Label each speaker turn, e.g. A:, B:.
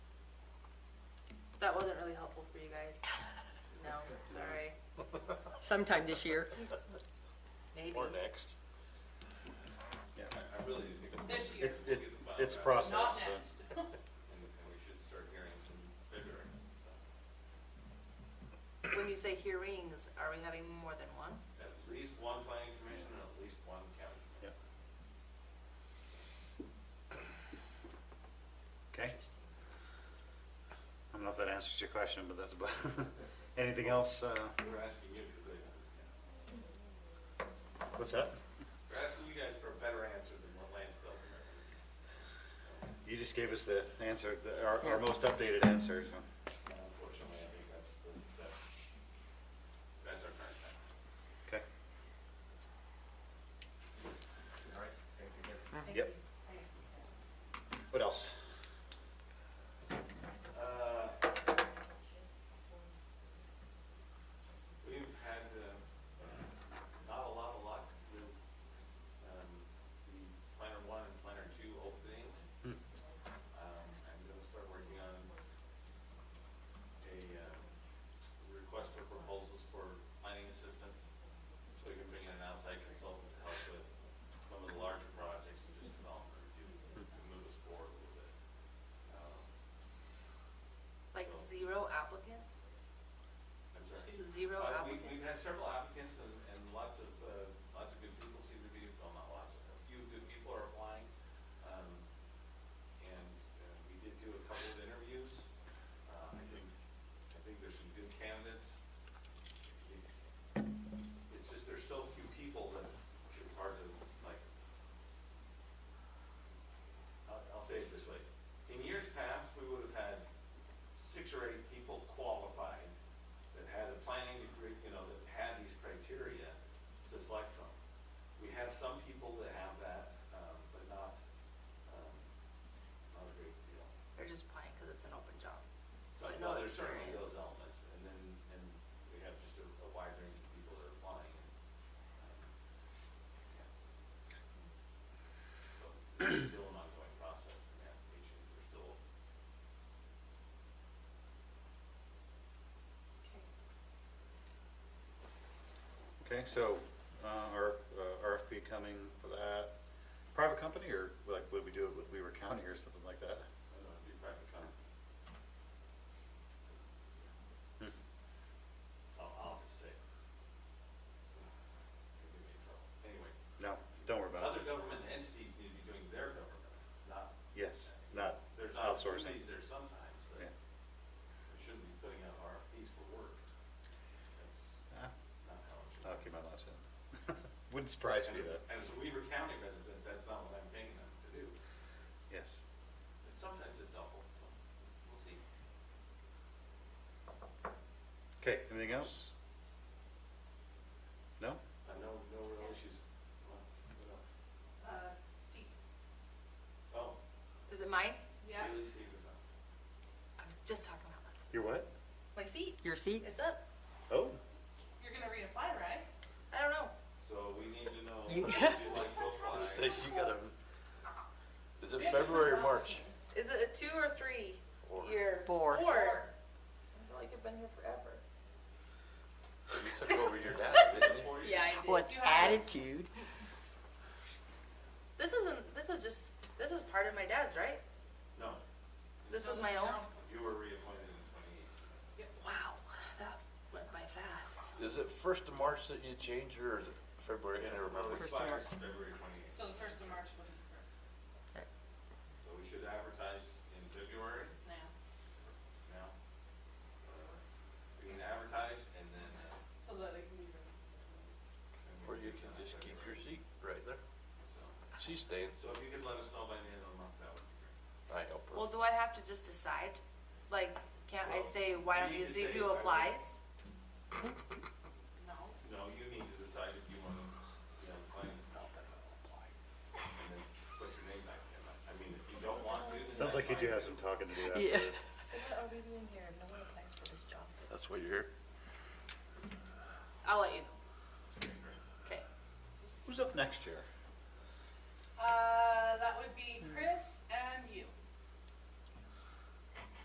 A: helpful for you guys. No, sorry.
B: sometime this year.
A: Maybe.
C: Or next.
D: Yeah,
E: I really just think.
A: This year.
D: It's, it- it's a process.
A: Not
D: so-
A: next.
E: And we should start hearing some February.
A: When you say hearings, are we having more than one?
E: At least one planning commission and at least one county.
D: yeah. Okay. I don't know if that answers your question, but that's about, anything else? uh,
E: We're asking you, because they,
D: What's that?
E: we're asking you guys for a better answer than what Lance does in there.
D: You just gave us the answer, the- our, our most updated answer, so.
E: So, Unfortunately, I think that's the, that's, that's our current time.
D: Okay,
E: All right, thanks
D: yep.
E: again.
D: What else?
E: Uh, We've had uh, not a lot of luck with um, the planner one and planner two openings.
D: Hmm.
E: Um, I'm gonna start working on a um, request for proposals for planning assistance, so we can bring in an outside consultant to help with some of the larger projects and just development review to move us forward a little bit. Um,
A: Like zero applicants?
E: I'm sorry.
A: Zero
E: Uh, we,
A: applicants?
E: we've had several applicants and, and lots of, uh, lots of good people seem to be, well, not lots, a few good people are applying. Um, and, uh, we did do a couple of interviews. Uh, I think, I think there's some good candidates. It's, it's just there's so few people that it's, it's hard to, it's like, I'll, I'll say it this way. In years past, we would have had six or eight people qualified that had a planning degree, you know, that had these criteria to select from. We have some people that have that, um, but not, um, not a great deal.
A: They're just applying because it's an open job.
E: So,
A: But
E: no,
A: no
E: there's certainly
A: experience.
E: those elements, and then, and we have just a, a wide range of people that are applying. and, um, yeah. So, it's still an ongoing process and application, we're still
D: Okay, so, uh, our, uh, RFP coming for that, private company or like, would we do it with Weaver County or something like that?
E: I don't know, be private company.
D: Hmm.
E: I'll, I'll just say. Give me trouble. Anyway,
D: No, don't worry about
E: other
D: it.
E: government entities need to be doing their government, not,
D: Yes, not
E: there's
D: outsourcing.
E: opportunities there sometimes,
D: Yeah.
E: but we shouldn't be putting out RFPs for work. That's
D: Ah,
E: not how it should.
D: I'll keep my last in. Wouldn't surprise me
E: And-
D: though.
E: And as a Weaver County resident, that's not what I'm paying them to do.
D: Yes.
E: But sometimes it's helpful, so we'll see.
D: Okay, anything else? No?
E: I know, no real issues. What what else?
F: Uh, seat.
E: Oh,
A: Is it mine?
E: Haley Steve is up.
A: I was just talking about that.
D: Your what?
A: My seat,
B: Your seat?
A: it's up.
D: Oh,
F: You're gonna reapply, right?
A: I don't know.
E: So we need to know.
B: You-
E: would you like to apply?
C: So you gotta, is it February or March?
A: Is it a two or three
C: Four.
A: year?
B: Four.
A: Four. I feel like I've been here forever.
C: You took over your dad, didn't you?
E: Or you-
A: Yeah, I did.
B: What
A: You have it.
B: attitude?
A: This isn't, this is just, this is part of my dad's, right?
E: No,
A: This was my own?
E: you were reappointed in twenty eighteen.
A: Wow, that went by fast.
C: Is it first of March that you changed or is it February? I can't remember.
B: First of
E: Expires
B: March.
E: February twenty eighth,
F: So the first of March would be for
E: so we should advertise in February
F: now.
E: now. Whatever. We can advertise and then. uh,
F: So that it can be ready.
E: and
C: Or
E: we
C: you
E: can
C: can
E: do that
C: just keep your
E: February.
C: seat right there.
E: So-
C: She's staying.
E: So if you could let us know by the end of the month, that would be great.
C: I help her.
A: Well, do I have to just decide? Like, can't I say, why don't you see who applies?
F: No.
E: No, you need to decide if you want to, you know, claim not that I don't apply. And then put your name back in. I mean, if you don't want to. then
D: sounds like you
E: that's
D: do
E: fine.
D: have some talking to do after
B: Yes.
D: this.
A: What are we doing here? No one applies for this job.
C: That's why you're here.
A: I'll let you know. Okay.
D: Who's up next year?
F: Uh, that would be Chris,